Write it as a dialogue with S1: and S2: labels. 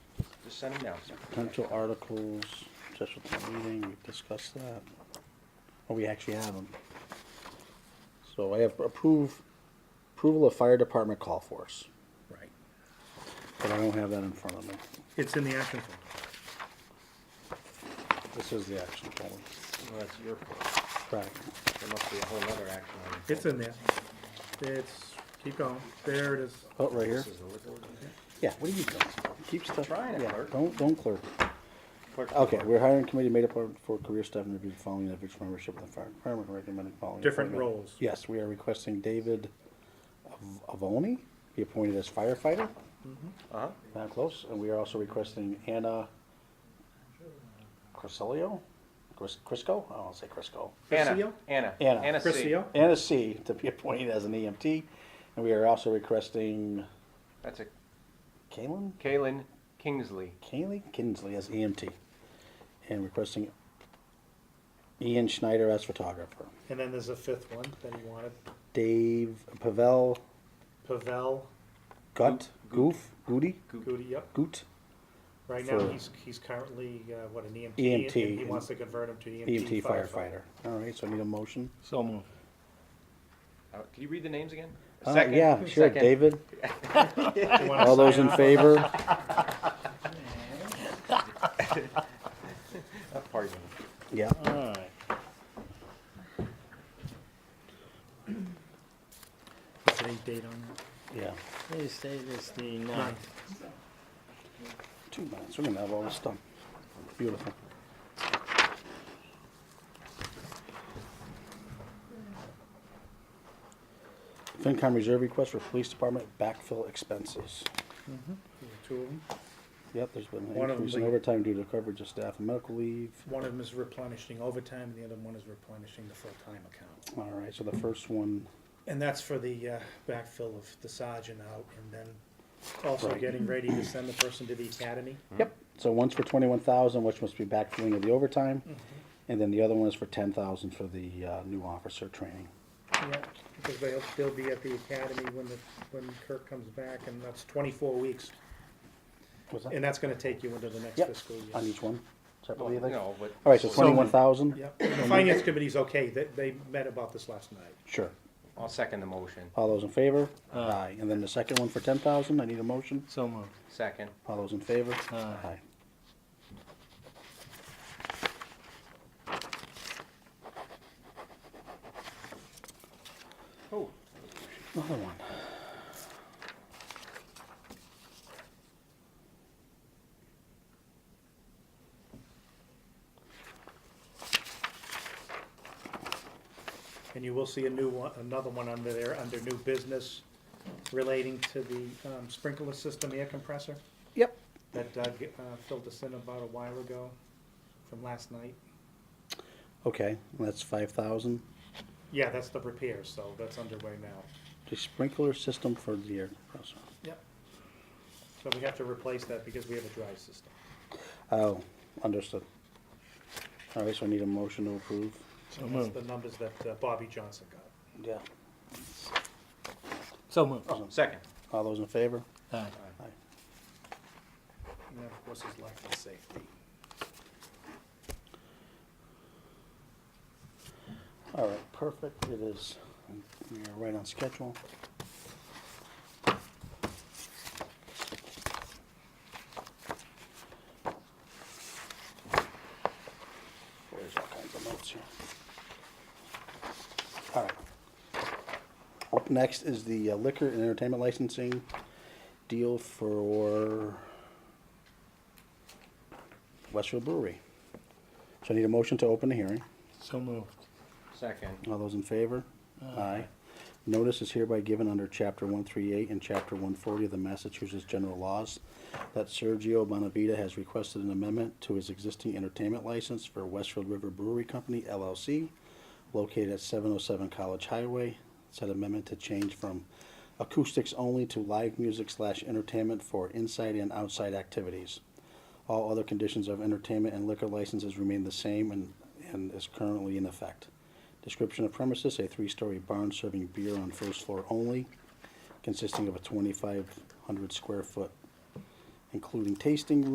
S1: send them down, sir.
S2: Potential articles, special town meeting, we discussed that. Oh, we actually have them. So I have approve, approval of fire department call force,
S1: Right.
S2: but I don't have that in front of me.
S3: It's in the action folder.
S2: This is the action folder.
S1: Well, that's your fault.
S2: Correct.
S1: There must be a whole other action item.
S3: It's in there. It's, keep going. There it is.
S2: Oh, right here.
S1: This is the liquor ordinance.
S2: Yeah, what are you doing? Keep stuff.
S1: Trying to
S2: yeah,
S1: clerk.
S2: Don't, don't clerk.
S1: Clerk-
S2: Okay, we're hiring committee made up of- for career staff and review the following individual membership of the fire department recommended following.
S3: Different
S2: appointment.
S3: roles.
S2: Yes, we are requesting David Av- Avoni be appointed as firefighter,
S1: Uh-huh,
S2: not close, and we are also requesting Anna Crisilio, Cris- Crisco, I don't to say Crisco.
S1: Anna,
S3: Priscilla?
S1: Anna.
S2: Anna.
S1: C.
S3: Priscilla?
S2: Anna C to be appointed as an EMT, and we are also requesting
S1: That's a,
S2: Kalen,
S1: Kaylin Kingsley.
S2: Kaylee Kinsley as EMT, and requesting Ian Schneider as photographer.
S3: And then there's a fifth one that he wanted.
S2: Dave Pavel
S3: Pavel
S2: Gut Goof Goody
S3: Goody, yep.
S2: Goot
S3: Right now,
S2: For- E
S3: he's, he's currently, uh, what, an EMT?
S2: EMT,
S3: and He
S2: and-
S3: wants to convert him to EMT
S2: EMT
S3: E firefighter.
S2: E firefighter. All right, so I need a motion.
S4: So moved.
S1: Uh, Can you read the names again?
S2: Uh,
S1: Second.
S2: Yeah, sure.
S1: Second.
S2: David.
S3: You wanna
S2: All those
S3: sign
S2: in
S3: off?
S2: favor?
S1: Uh, Pardon me.
S2: Yeah.
S4: Alright.
S3: Today's date on
S2: Yeah.
S4: Today's date is the
S3: that?
S4: ninth.
S3: Ninth.
S2: Two minutes. We're gonna have all this done. Beautiful. FinCom reserve request for police department backfill expenses.
S3: Mm-hmm. Two of them.
S2: Yep, there's been an
S3: One of
S2: increase in
S3: them's like-
S2: overtime due to coverage of staff and medical leave.
S3: One of them is replenishing overtime, and the other one is replenishing the full-time account.
S2: All right, so the first one,
S3: And that's for the uh, backfill of the sergeant out, and then also
S2: Right.
S3: getting ready to send the person to the academy.
S2: Yep, so one's for twenty-one thousand, which must be backfilling of the overtime, and then the other one is for ten thousand for the, uh, new officer training.
S3: Yeah, because they'll, they'll be at the academy when the, when Kirk comes back, and that's twenty-four weeks.
S2: Was that?
S3: And that's gonna take you into the next
S2: Yep.
S3: fiscal year.
S2: On each one, separately, I think?
S1: No, but.
S2: All right, so twenty-one thousand?
S3: Yep, and the finance committee's okay, they, they met about this last night.
S2: Sure.
S1: I'll second the motion.
S2: All those in favor? Aye. And then the second one for ten thousand, I need a motion.
S4: So moved.
S1: Second.
S2: All those in favor?
S4: Aye.
S1: Oh,
S2: Another one.
S3: And you will see a new one, another one under there, under new business relating to the um, sprinkler system air compressor
S2: Yep.
S3: that Doug uh, filled us in about a while ago from last night.
S2: Okay, that's five thousand.
S3: Yeah, that's the repair, so that's underway now.
S2: The sprinkler system for the air compressor.
S3: Yep. So we have to replace that because we have a dry system.
S2: Oh, understood. All right, so I need a motion to approve.
S4: So
S3: And That's
S4: moved.
S3: the numbers that uh, Bobby Johnson got.
S2: Yeah.
S4: So moved.
S1: second.
S2: All those in favor?
S4: Aye.
S2: Aye.
S3: And then, of course, his life and safety.
S2: All right, perfect, it is, we are right on schedule. There's all kinds of notes here. All right. Up next is the uh, liquor and entertainment licensing deal for Westfield Brewery. So I need a motion to open the hearing.
S4: So moved.
S1: Second.
S2: All those in favor? Aye. Notice is hereby given under Chapter 138 and Chapter 140 of the Massachusetts General Laws that Sergio Bonavita has requested an amendment to his existing entertainment license for Westfield River Brewery Company LLC, located at 707 College Highway. Said amendment to change from acoustics only to live music slash entertainment for inside and outside activities. All other conditions of entertainment and liquor licenses remain the same and, and is currently in effect. Description of premises, a three-story barn serving beer on first floor only, consisting of a twenty-five hundred square foot, including tasting room.